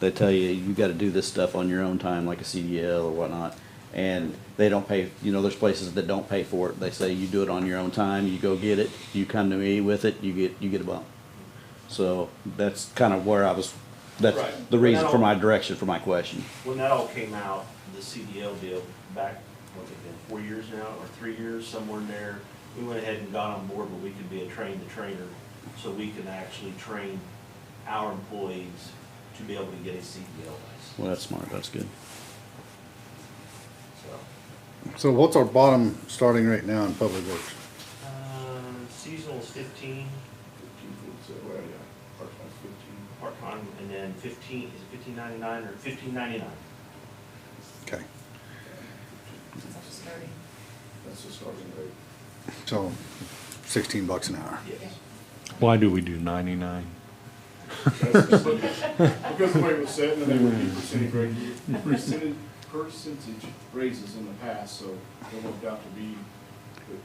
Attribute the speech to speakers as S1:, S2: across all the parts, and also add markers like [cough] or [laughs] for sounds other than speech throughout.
S1: they tell you, you gotta do this stuff on your own time, like a CDL or whatnot. And they don't pay, you know, there's places that don't pay for it. They say you do it on your own time, you go get it, you come to me with it, you get, you get a bump. So that's kind of where I was, that's
S2: Right.
S1: the reason
S2: Now-
S1: for my direction for my question.
S2: When that all came out, the CDL deal back, what's it been, four years now, or three years, somewhere in there, we went ahead and got on board where we could be a train the trainer, so we can actually train our employees to be able to get a CDL license,
S1: Well, that's smart, that's good.
S2: so.
S3: So what's our bottom starting right now in public works?
S2: Um, seasonal is fifteen,
S4: Fifteen foot, so, well, yeah, part-time fifteen.
S2: part-time, and then fifteen, is it fifteen ninety-nine or fifteen ninety-nine?
S3: Okay,
S5: That's starting.
S4: That's the starting rate.
S3: so sixteen bucks an hour.
S2: Yes.
S6: Why do we do 99?
S4: That's the starting- Because the way it was set, and then there were percentage rate, percentage, percentage raises in the past, so it worked out to be,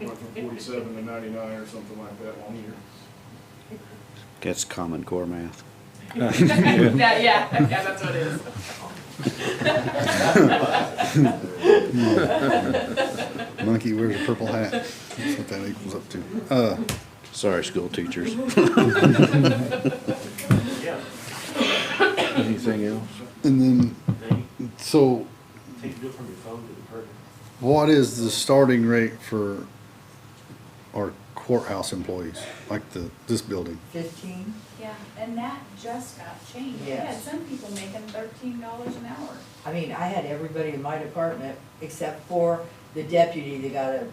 S4: it went from forty-seven to ninety-nine or something like that one year.
S1: That's common core math.
S3: [laughs]
S7: [laughs]
S5: That, yeah, yeah, that's what it is.
S3: Monkey wears a purple hat. That's what that equals up to. Uh,
S1: Sorry, school
S2: [laughs]
S1: teachers.
S2: Yeah,
S1: Anything else?
S3: and then,
S2: then
S3: so
S2: you take it from your phone to the person.
S3: what is the starting rate for our courthouse employees, like the, this building?
S8: Fifteen?
S5: Yeah, and that just got changed. We had
S8: Yes.
S5: some people making thirteen dollars an hour.
S8: I mean, I had everybody in my department except for the deputy that got a,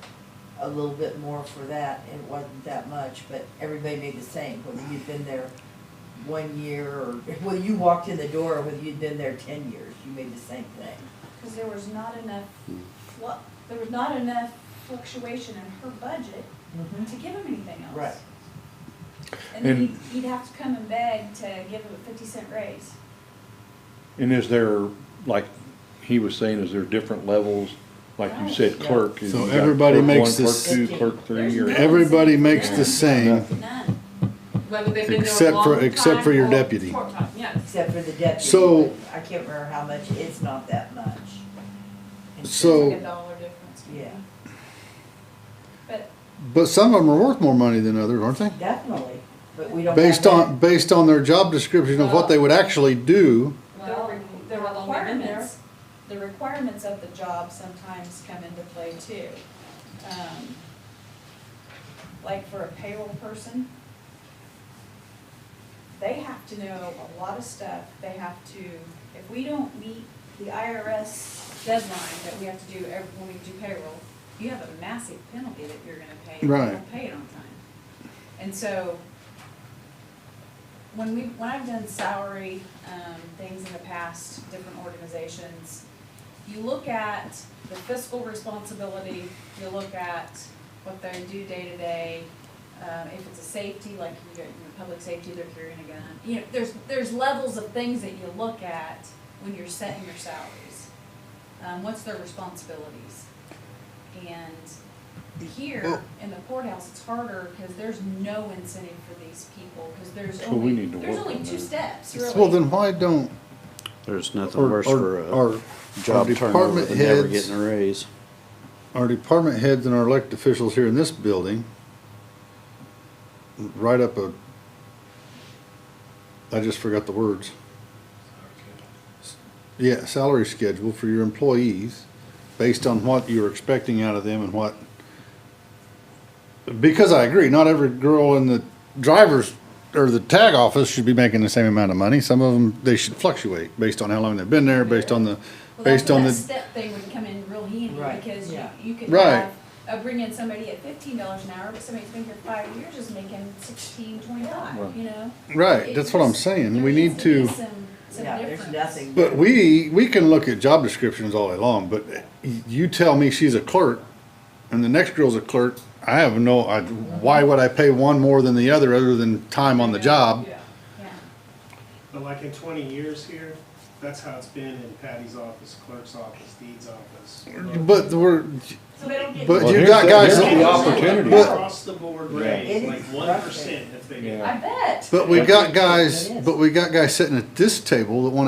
S8: a little bit more for that. It wasn't that much, but everybody made the same, whether you'd been there one year or, [laughs] whether you walked in the door or whether you'd been there ten years, you made the same thing.
S5: Cause there was not enough flu, there was not enough fluctuation in her budget to give him anything else.
S8: Right.
S5: And then
S6: And-
S5: he'd, he'd have to come and beg to give him a fifty cent raise.
S6: And is there, like he was saying, is there different levels? Like you said, clerk. is
S3: So
S6: you got
S3: everybody
S6: clerk
S3: makes
S6: one,
S3: this-
S6: Clerk two, clerk three, or,
S3: Everybody makes the same,
S5: None.
S7: Whether they've been there a
S3: except
S7: long
S3: for,
S7: time.
S3: except for your
S7: or
S3: deputy.
S7: Short time, yes.
S8: Except for the deputy.
S3: So-
S8: I can't remember how much, it's not that much. It's
S3: So-
S7: Like a dollar difference.
S8: just- Yeah,
S5: But
S3: But some of them are worth more money than others, aren't they?
S8: definitely, but we don't.
S3: Based
S8: have that.
S3: on, based on their job description of what they would actually do.
S5: Well,
S7: Well,
S5: the
S7: they're long they've been there.
S5: requirements, the requirements of the job sometimes come into play too. Um, Like for a payroll person, they have to know a lot of stuff, they have to, if we don't meet the IRS deadline that we have to do every, when we do payroll, you have a massive penalty that you're gonna pay if you
S3: Right.
S5: don't pay it on time. And so, when we, when I've done salary, um, things in the past, different organizations, you look at the fiscal responsibility, you look at what they do day to day. Um, if it's a safety, like you get, you know, public safety, they're carrying a gun. You know, there's, there's levels of things that you look at when you're setting your salaries. Um, what's their responsibilities? And
S3: Oh.
S5: here, in the courthouse, it's harder because there's no incentive for these people, because there's
S6: So we
S5: only,
S6: need to
S5: there's
S6: work
S5: only
S6: on
S5: two
S6: that.
S5: steps, really.
S3: Well, then why don't,
S1: There's nothing
S3: or,
S1: worse for
S3: or,
S1: a
S3: our,
S1: job turnover
S3: department
S1: than never
S3: heads-
S1: getting a raise.
S3: our department heads and our elected officials here in this building write up a, I just forgot the words. Yeah, salary schedule for your employees based on what you're expecting out of them and what. Because I agree, not every girl in the driver's or the tag office should be making the same amount of money. Some of them, they should fluctuate based on how long they've been there, based on the,
S5: Well, that's
S3: based
S5: where
S3: on
S5: that
S3: the.
S5: step thing would come in real handy,
S8: Right,
S5: because you,
S8: yeah.
S5: you could
S3: Right.
S5: have, uh, bring in somebody at fifteen dollars an hour, but somebody that's been here five years is making sixteen, twenty-five, you know?
S3: Right,
S5: It
S3: that's what I'm
S5: just-
S3: saying.
S5: there
S3: We
S5: needs
S3: need
S5: be
S3: to,
S5: Some, some
S8: Yeah, there's
S5: difference.
S8: nothing.
S3: but we, we can look at job descriptions all day long, but you tell me she's a clerk and the next girl's a clerk, I have no, I, why would I pay one more than the other, other than time on the job?
S7: Yeah.
S5: Yeah.
S9: But like in twenty years here, that's how it's been in Patty's office, clerk's office, deed's office.
S3: But we're,
S7: So they don't get.
S3: but
S6: Well,
S3: you
S6: here's
S3: got
S6: the-
S3: guys,
S6: here's
S9: It's
S6: the
S3: that-
S6: opportunity.
S9: Across the board raise,
S8: It
S9: like
S8: is
S9: one percent if they get
S6: Yeah.
S5: I bet.
S3: but we got
S8: It
S3: guys,
S8: is.
S3: but we got guys sitting at this table that wanna